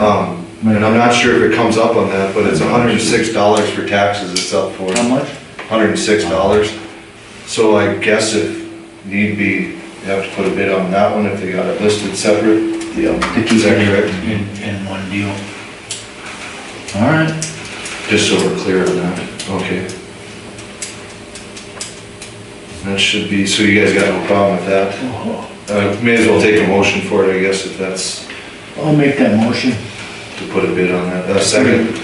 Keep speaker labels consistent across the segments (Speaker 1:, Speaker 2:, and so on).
Speaker 1: Um, and I'm not sure if it comes up on that, but it's hundred and six dollars for taxes it's up for.
Speaker 2: How much?
Speaker 1: Hundred and six dollars. So I guess if need be, you have to put a bid on that one if they got it listed separate.
Speaker 2: Yeah.
Speaker 1: To keep it.
Speaker 3: in, in one deal.
Speaker 2: All right.
Speaker 1: Just so we're clear on that, okay. That should be, so you guys got no problem with that? Uh, may as well take a motion for it, I guess, if that's,
Speaker 2: I'll make that motion.
Speaker 1: to put a bid on that. A second,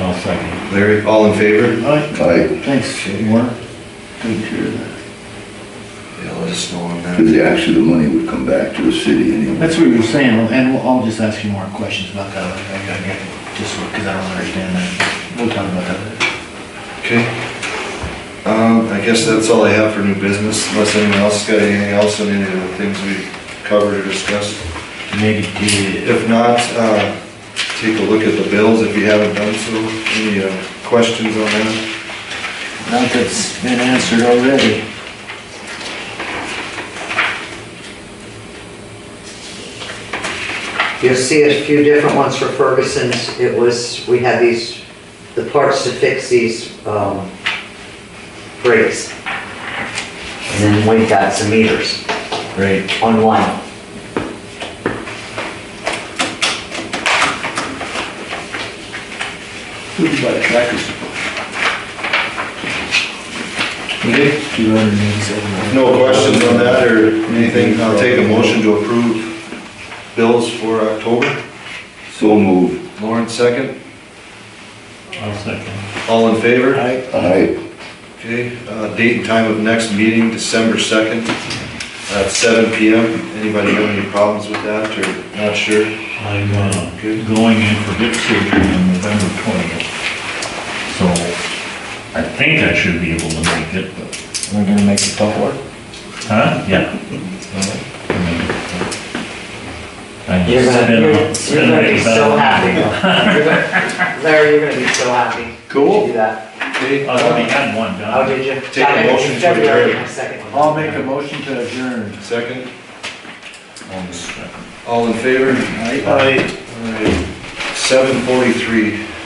Speaker 3: I'll second.
Speaker 1: Larry, all in favor?
Speaker 2: All right,
Speaker 4: I,
Speaker 2: thanks, Warner. Take care of that.
Speaker 1: Yeah, let us know on
Speaker 4: because
Speaker 1: that.
Speaker 4: the actually the money would come back to the city anyway.
Speaker 2: That's what you were saying, and we'll- I'll just ask you more questions about that, I gotta get, just because I don't understand that. We'll talk about that.
Speaker 1: Okay. Um, I guess that's all I have for new business, unless anyone else got anything else on any of the things we covered or discussed.
Speaker 3: Maybe did,
Speaker 1: If not, uh, take a look at the bills if you haven't done so. Any, uh, questions on that?
Speaker 2: Not that's been answered already.
Speaker 5: You'll see a few different ones for Ferguson's. It was, we had these, the parts to fix these um, brakes. And then we got some meters
Speaker 3: right,
Speaker 5: on one.
Speaker 2: Who'd you buy the tractors from? Two hundred and eighty-seven.
Speaker 1: No questions on that or anything? I'll take a motion to approve bills for October.
Speaker 4: So moved.
Speaker 1: Lauren, second.
Speaker 3: I'll second.
Speaker 1: All in favor?
Speaker 2: Aye.
Speaker 4: I,
Speaker 1: Okay, uh, date and time of next meeting, December 2nd, at seven PM. Anybody have any problems with that or not sure?
Speaker 3: I'm, uh, going in for hip surgery on November twentieth. So I think I should be able to make it, but,
Speaker 2: We're gonna make the tough work.
Speaker 3: huh? Yeah. I mean, I
Speaker 5: You're
Speaker 3: just
Speaker 5: gonna,
Speaker 3: spin-
Speaker 5: you're
Speaker 3: spin
Speaker 5: you're gonna be
Speaker 3: right
Speaker 5: so
Speaker 3: back.
Speaker 5: happy. You're gonna- Larry, you're gonna be so happy.
Speaker 1: Cool.
Speaker 5: You do that.
Speaker 1: Okay,
Speaker 3: I already had one done.
Speaker 5: How did you?
Speaker 1: Take a motion to
Speaker 5: February,
Speaker 1: adjourn.
Speaker 5: my second one.
Speaker 2: I'll make a motion to adjourn.
Speaker 1: second.
Speaker 3: On the second.
Speaker 1: All in favor?
Speaker 2: Aye.
Speaker 1: All right, 7:43.